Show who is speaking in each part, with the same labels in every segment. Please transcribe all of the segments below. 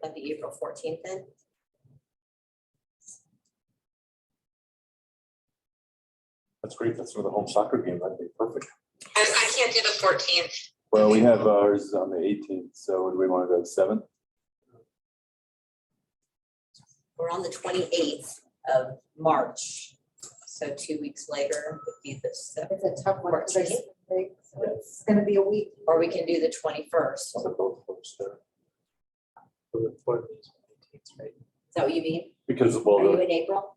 Speaker 1: That'd be April fourteenth then.
Speaker 2: That's great. That's for the home soccer game. That'd be perfect.
Speaker 3: I, I can't do the fourteenth.
Speaker 2: Well, we have ours on the eighteenth, so would we want to go to seventh?
Speaker 1: We're on the twenty-eighth of March. So two weeks later would be the seventh,
Speaker 4: It's a tough one, because I
Speaker 1: 14th.
Speaker 4: think it's gonna be a week.
Speaker 1: or we can do the twenty-first. Is that what you mean?
Speaker 2: Because, well,
Speaker 1: Are you
Speaker 2: the-
Speaker 1: in April?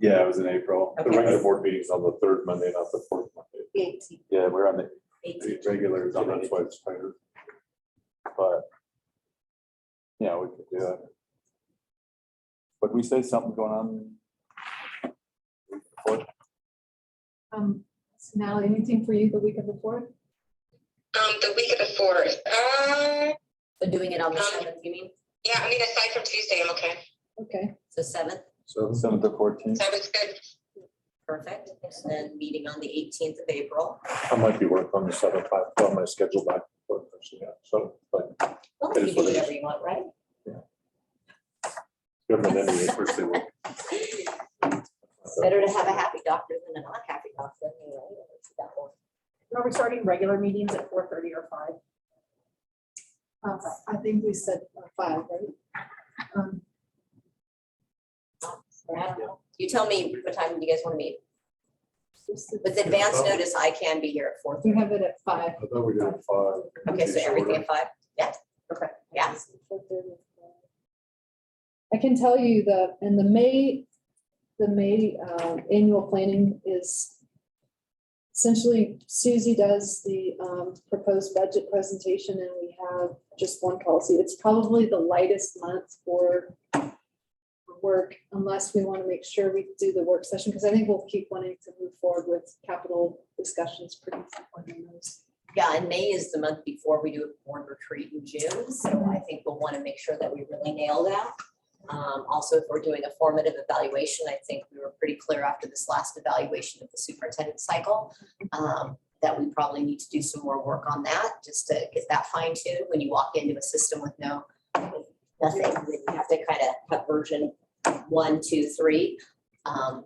Speaker 2: yeah, it was in April. The
Speaker 1: Okay.
Speaker 2: regular board meeting's on the third Monday, not the fourth Monday.
Speaker 4: Eighteen.
Speaker 2: Yeah, we're on the
Speaker 1: Eighteenth.
Speaker 2: the regular, so that's why it's tighter. But, yeah, we could do it. But we say something going on. What?
Speaker 5: Um, so Natalie, anything for you the week of the fourth?
Speaker 3: Um, the week of the fourth. Uh,
Speaker 1: So doing it on the
Speaker 3: Um,
Speaker 1: seventh, you mean?
Speaker 3: yeah, I mean, aside from Tuesday, I'm okay.
Speaker 5: Okay,
Speaker 1: So seventh,
Speaker 2: Seventh to fourteenth.
Speaker 3: Seven's good.
Speaker 1: perfect. And then meeting on the eighteenth of April.
Speaker 2: I might be working on the seventh, I've got my schedule back. but, yeah, So, but
Speaker 1: Well,
Speaker 2: It
Speaker 1: you can
Speaker 2: is
Speaker 1: do
Speaker 2: what it is.
Speaker 1: whatever you want, right?
Speaker 2: government anyway, first they work.
Speaker 1: Better to have a happy doctor than a not happy doctor. you know, it's that one.
Speaker 6: Are we starting regular meetings at four thirty or five?
Speaker 5: uh, I think we said uh, five, right? Um,
Speaker 1: Or I don't know. You tell me what time you guys want to meet.
Speaker 5: just the-
Speaker 1: With advance notice, I can be here at four
Speaker 5: We
Speaker 1: thirty.
Speaker 5: have it at five.
Speaker 2: I thought we did it five.
Speaker 1: Okay, so everything at five? Yeah.
Speaker 6: Okay.
Speaker 1: Yeah.
Speaker 5: I can tell you that in the May, the May uh, annual planning is essentially Susie does the um, proposed budget presentation and we have just one policy. It's probably the lightest month for work unless we want to make sure we do the work session because I think we'll keep wanting to move forward with capital discussions pretty frequently. on those.
Speaker 1: Yeah, and May is the month before we do a board retreat in June, so I think we'll want to make sure that we really nail that. Um, also, if we're doing a formative evaluation, I think we were pretty clear after this last evaluation of the superintendent cycle. um, that we probably need to do some more work on that, just to get that fine tuned. When you walk into a system with no, with nothing, then you have to kind of have version one, two, three. Um,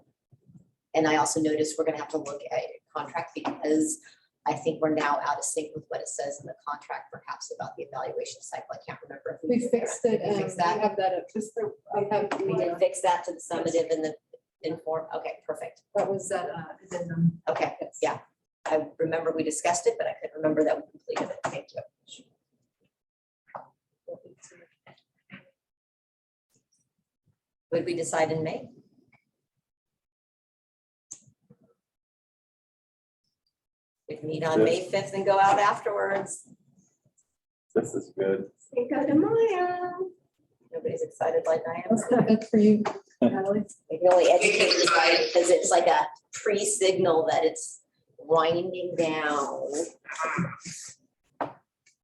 Speaker 1: and I also noticed we're gonna have to look at contract because I think we're now out of sync with what it says in the contract perhaps about the evaluation cycle. I can't remember. if
Speaker 5: We fixed it.
Speaker 1: We
Speaker 5: um,
Speaker 1: fixed that.
Speaker 5: We have that up.
Speaker 4: Just the,
Speaker 5: I have- uh,
Speaker 1: We did fix that to the summative and the inform. Okay, perfect.
Speaker 5: That was that, uh, addendum.
Speaker 1: Okay, yeah. I remember we discussed it, but I couldn't remember that we completed it. Thank you. Would we decide in May? We'd meet on May fifth and go out afterwards.
Speaker 2: This is good.
Speaker 1: Cinco de Mayo. Nobody's excited like I am.
Speaker 5: That's not good for you, Natalie.
Speaker 1: It really educates
Speaker 3: can
Speaker 1: you
Speaker 3: divide.
Speaker 1: because it's like a pre-signal that it's winding down.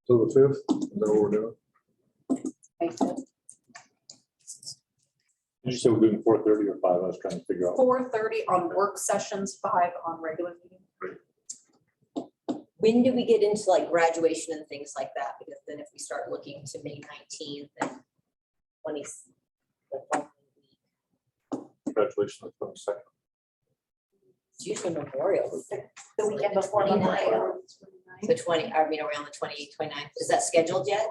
Speaker 2: So the fifth, is that what we're doing? Did you say we're doing four thirty or five? I was trying to figure out.
Speaker 6: Four thirty on work sessions, five on regular meetings.
Speaker 1: When do we get into like graduation and things like that? Because then if we start looking to May nineteenth and twenty. the following week,
Speaker 2: Congratulations on the twenty-second.
Speaker 1: It's usually Memorial Week.
Speaker 4: the weekend before Memorial.
Speaker 1: The twenty, I mean, around the 28th, 29th. Is that scheduled yet?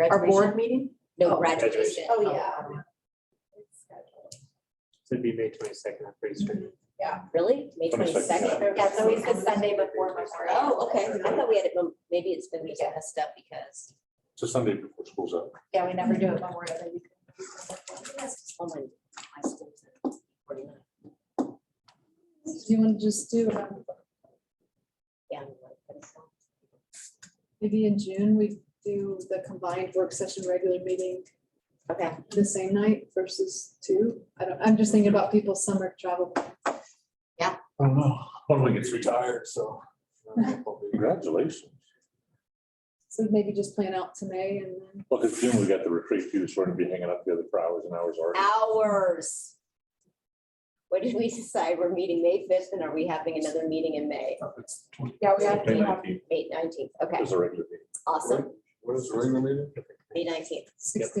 Speaker 6: Our
Speaker 1: Graduation?
Speaker 6: board meeting?
Speaker 1: No, graduation.
Speaker 4: Oh, yeah.
Speaker 7: So it'd be May twenty-second, I'm pretty certain.
Speaker 1: Really? May
Speaker 2: 22nd,
Speaker 1: twenty-second?
Speaker 4: Yeah, it's always the Sunday before Memorial.
Speaker 1: Oh, okay. I thought we had it, mem- maybe it's been messed up because,
Speaker 2: So Sunday before school's out.
Speaker 4: Yeah, we never do it Memorial Day.
Speaker 1: oh my, my school's in 49.
Speaker 5: Do you want to just do, um,
Speaker 1: Yeah. I'm like,
Speaker 5: maybe in June, we do the combined work session, regular meeting
Speaker 1: Okay,
Speaker 5: the same night versus two? I don't, I'm just thinking about people's summer travel.
Speaker 2: I don't know. One of them gets retired, so. Congratulations.
Speaker 5: So maybe just plan out to May and then,
Speaker 2: Well, because June we got the retreat too, so we're gonna be hanging out together for hours and hours already.
Speaker 1: hours. What did we decide? We're meeting May fifth and are we having another meeting in May?
Speaker 2: It's twenty-
Speaker 4: Yeah, we have,
Speaker 2: May
Speaker 4: we have
Speaker 2: nineteenth
Speaker 1: May nineteenth, okay,
Speaker 2: is a regular meeting.
Speaker 1: awesome,
Speaker 2: What is the regular meeting?
Speaker 1: May nineteenth.
Speaker 5: sixteen.